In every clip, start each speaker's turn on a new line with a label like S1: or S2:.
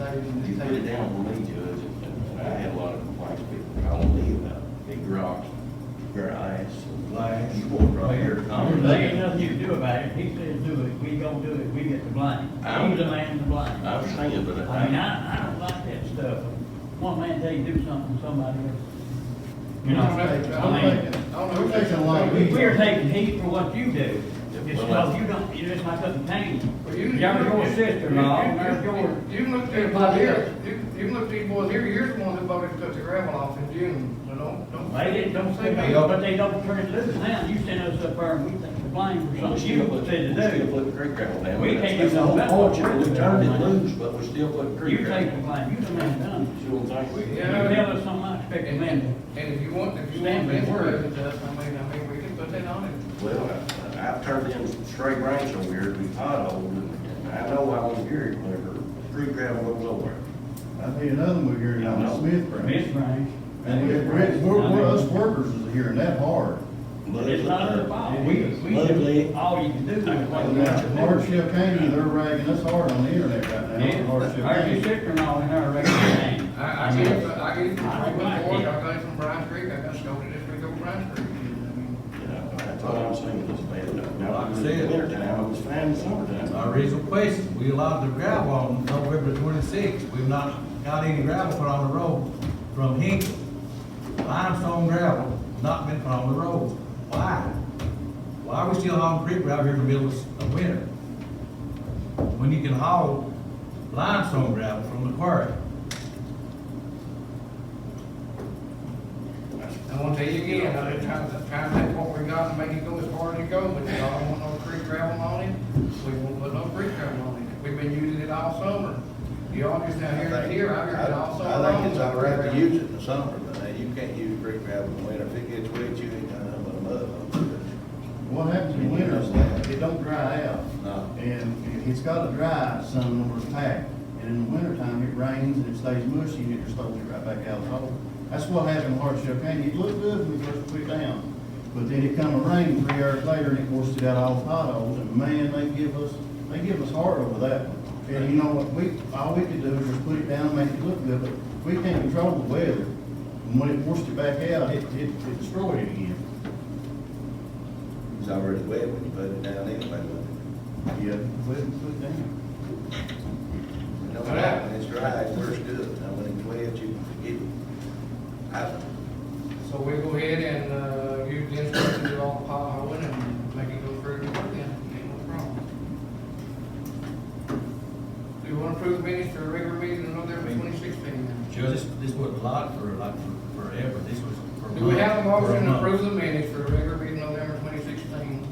S1: take it down for me, Judge, and I had a lot of complaints, people calling me about big rocks, grass, and glass, you walk right here, to Congress.
S2: There ain't nothing you can do about it, he says do it, we gonna do it, we get the blame.
S1: I'm-
S2: He's the man to blame.
S1: I was saying, but
S2: I mean,
S1: I,
S2: I, I don't like that stuff. One man tell you do something, somebody else. You know, I
S3: I'm
S2: mean,
S3: taking, I'm taking a lot of
S2: we-
S3: heat.
S2: we're taking heat for what you do.
S1: Yeah,
S2: Just
S1: well,
S2: because you don't, you just like up pain.
S4: Well, you-
S2: You're your sister-in-law,
S4: you- you-
S2: there's your.
S4: You can look at these boys here, you, you can look at these boys here, you're the one that voted to cut the gravel off in June, so don't, don't.
S2: They didn't, don't say nothing, but they don't turn it loose now. You sent us up there and we take the blame for
S1: we
S2: something
S1: still
S2: you
S1: put,
S2: said
S1: we
S2: to
S1: still
S2: do.
S1: put the creek gravel down.
S2: We can't do
S1: That's the whole
S2: nothing.
S1: point, Judge. we turned it loose, but we still put the
S2: You
S1: creek
S2: take
S1: gravel.
S2: the blame, you the man done it.
S1: See what I'm saying?
S2: You tell us something, I expect a
S4: And,
S2: man to.
S4: and, and if you want, if you want
S2: Stand
S4: to
S2: by your word.
S4: to us, I mean, I mean, we can put that on it.
S1: Well, I- I've turned in some straight range over here, we potholed, and I know I was here whenever creek gravel goes over.
S3: I think another one we're hearing
S1: I know.
S3: on Smith Branch.
S2: Miss Branch.
S3: And we're, we're, we're- us workers is hearing that hard.
S1: Mud
S2: It's not
S1: litter.
S2: their fault.
S3: We-
S1: we do- Lovely.
S2: All you can do is what
S3: And
S2: you
S3: now,
S2: want to do.
S3: Hardship County, they're ragging us hard on the internet right now,
S2: Yeah,
S3: on Hardship
S2: There's your
S3: County.
S2: sister and all in our regular name.
S4: I, I get, it, but I get it from
S2: I don't
S4: Freeman
S2: like
S4: Ford,
S2: it.
S4: I got it from Brian Creek, I got scolded this week over Brian Creek. I
S5: Mm-hmm.
S4: mean,
S1: Yeah, That's all I'm saying, is bad. Now, like I said, wintertime, it was fine in summertime.
S6: My original Uh, question, we allowed the gravel on November twenty-sixth, we've not got any gravel put on the road from Hinkle. Limestone gravel, not been put on the road, why? Why are we still hauling creek gravel here in the middle of of winter? When you can haul limestone gravel from the quarry?
S4: I want to tell you again, I didn't try to, try to take what we got and make it go as far as it goes, but y'all don't want no creek gravel on it. We won't put no creek gravel on it. We've been using it all summer. Y'all just out here and here, I've heard it all summer long.
S5: I think it's all right to use it in the summer, but uh, you can't use creek gravel in the winter. If it gets wet, you ain't got nothing but mud on
S3: What happens in winter is that it don't dry out.
S5: No.
S3: And it's gotta dry some in order to pack. And in the wintertime, it rains and it stays mushy and it just throws it right back out of the hole. That's what happened in Hardship County. It looked good when we first put it down. But then it come a rain three hours later and it washed it out all the potholes and man, they give us, they give us hard over that one. And you know what, we, all we could do is just put it down, make it look good, but we can't control the weather. And when it washed it back out, it, it it destroyed it again.
S5: it. It's already wet when you put it down anyway, but
S3: Yeah, put it, put it down.
S5: it don't matter. When it's dry, it works good. Now, when it's wet, you can forget it. I,
S4: So we go ahead and, uh, use the instructions of all the potholing and make it go through the work then, ain't no problem. Do you want to approve the minutes for a regular meeting in November twenty sixteen then?
S6: Judge, this, this wasn't allowed for like for- forever, this was for. a
S4: Do we have a
S6: month, for
S4: motion to
S6: month.
S4: approve the minutes for regular meeting November twenty sixteen, twenty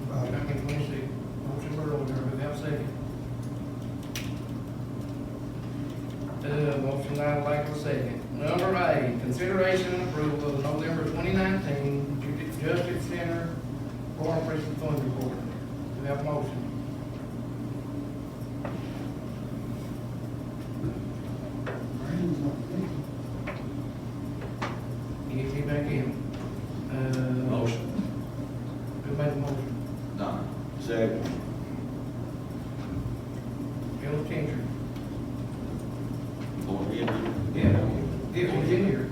S4: twenty-six? Motion for order, we have a second. Uh, motion by Michael, second. Number eight, consideration and approval of November twenty nineteen Justice Center Foreign Prison Fund Report. Do we have a motion? Get me back in. Uh,
S6: Motion,
S4: Who made the motion?
S5: no. Second.
S4: Bill Changer.
S1: Go ahead.
S4: Bill Changer.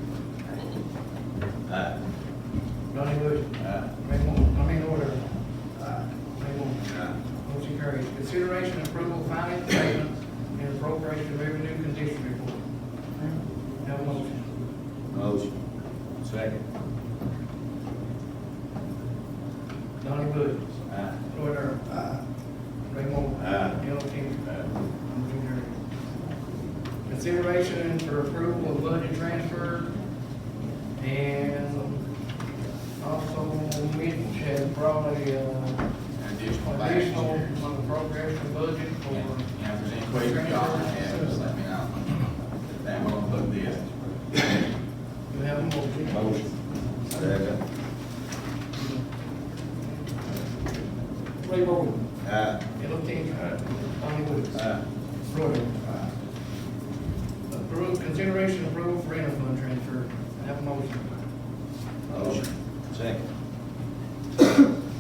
S5: Aye.
S4: Donnie Bush.
S5: Aye.
S4: Ray Moore, I mean, order.
S5: Aye.
S4: Ray Moore.
S5: Aye.
S4: Motion carries. Consideration and approval of finance statements and appropriation revenue condition report. Have a motion.
S5: Motion.
S6: second,
S4: Donnie Bush.
S5: Aye.
S4: Lloyd Earl.
S5: Aye.
S4: Ray Moore.
S5: Aye.
S4: Bill Changer.
S5: Aye.
S4: Motion carries. uh, Consideration for approval of budget transfer and also Mitch had probably, uh,
S7: additional bags
S4: additional
S7: here.
S4: on the progression budget
S7: And
S4: for
S7: and if there's any questions y'all have, just let me know. Then we'll put this.
S4: You have a motion.
S5: Motion. Second.
S4: Ray Moore.
S5: Aye.
S4: Ellis Cantor. Donnie Bush.
S5: Aye.
S4: Roy. Approve, consideration approval for interfund transfer. Have a motion.
S5: Motion. Second.